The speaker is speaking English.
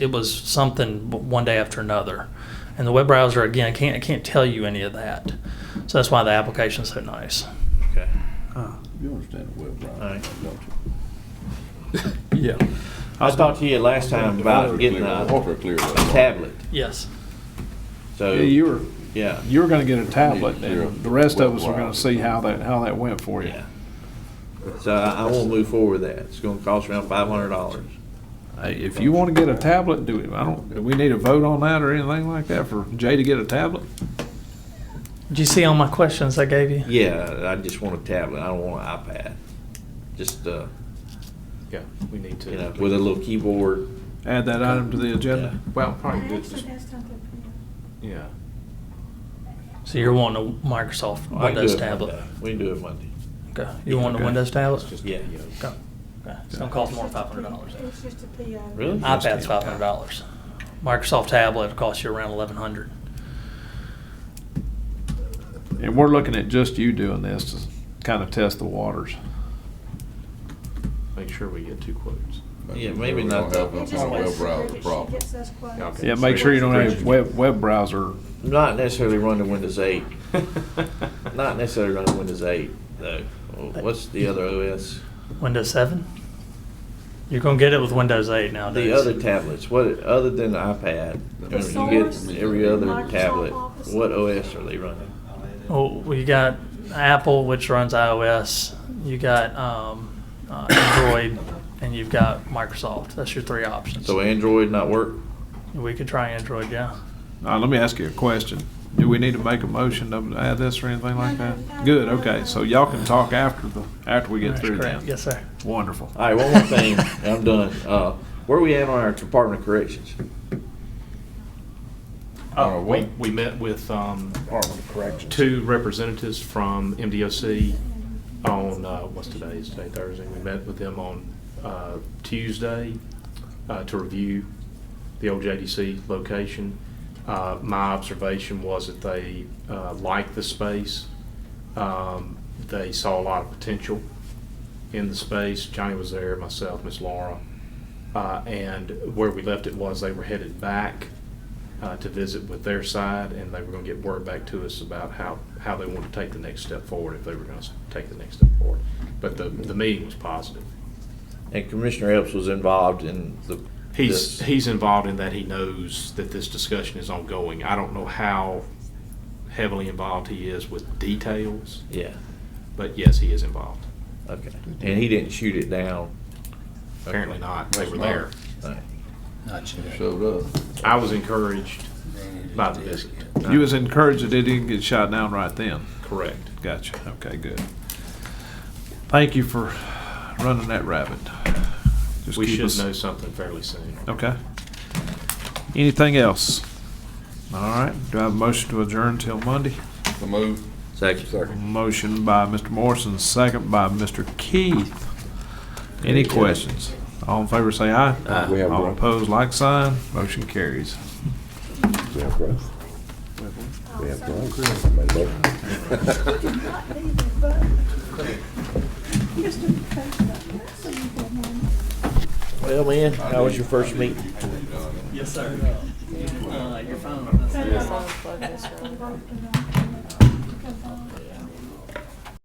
it was something b- one day after another. And the web browser, again, I can't, I can't tell you any of that. So that's why the application's so nice. Okay. You understand the web browser, Aye. don't Yeah. I talked to you last time you? about getting Water a clear. tablet, Yes. so, Yeah, you were, yeah, you were gonna get a tablet, Yeah. and the rest of us were gonna see how that, how that went for you. yeah. So I, I won't move forward with that. It's gonna cost around five hundred dollars. Hey, If you wanna get a tablet, do it, I don't, do we need a vote on that or anything like that for Jay to get a tablet? Did you see all my questions I gave you? Yeah, I just want a tablet. I don't want an iPad. Just, uh, Yeah, we need to. you know, with a little keyboard. Add that item to the agenda. Well, I probably good, actually have something for you. yeah. So you're wanting a Microsoft I can do Windows it tablet? Monday. We can do it Monday. Okay. You want a Okay. Windows tablet? It's just, Yeah. you know, Okay. Okay. It's gonna cost more than five hundred dollars. It's just a PO. Really? iPad's five hundred dollars. Microsoft tablet will cost you around eleven hundred. And we're looking at just you doing this to kinda test the waters. Make sure we get two quotes. Yeah, maybe not Have that. We a just kind of want to web secure browser that she problem. gets us quotes. Okay. Yeah, make sure you don't have Spreadsheet. web, web browser, Not necessarily run to Windows eight. Not necessarily run to Windows eight, though. Well, What's the other OS? Windows seven? You're gonna get it with Windows eight nowadays. The other tablets, what, other than the iPad, The when you Source, get every other Microsoft tablet, Office. what OS are they running? Well, Oh, we got Apple, which runs iOS. You got um, uh, Android, and you've got Microsoft. That's your three options. So Android not work? we could try Android, yeah. uh, let me ask you a question. Do we need to make a motion to add this or anything like that? Good, okay, so y'all can talk after the, after we get That's through correct. that. Yes, sir. Wonderful. All right, one more thing, I'm done. Uh, where we at on our Department of Corrections? Uh, we, we met with, um, two representatives from MDOC on, uh, what's today, is today Thursday? We met with them on, uh, Tuesday, uh, to review the old JDC location. Uh, my observation was that they, uh, liked the space. Um, they saw a lot of potential in the space. Johnny was there, myself, Miss Laura. Uh, and where we left it was they were headed back uh, to visit with their side, and they were going to get word back to us about how, how they wanted to take the next step forward, if they were going to take the next step forward. But the, the meeting was positive. And Commissioner Epps was involved in the. He's, this. he's involved in that. He knows that this discussion is ongoing. I don't know how heavily involved he is with details, Yeah, but yes, he is involved. okay. And he didn't shoot it down? Apparently not. They were That's there. All right. Showed up. I was encouraged by the visit. You was encouraged that it didn't get shot down right then. Correct. Gotcha. Okay, good. Thank you for running that rabbit. Just We keep should us- know something fairly soon. Okay. Anything else? All right. Do I have a motion to adjourn till Monday? The move. Second. Motion by Mr. Morrison, second by Mr. Keith. Any questions? All in favor, say aye. We have All one. opposed, like sign. Motion carries. We have growth. We have growth. Not leaving, but- Just in case, but something going on. Well, man, how was your first meeting? Yes, sir. Uh, your phone. Something going on.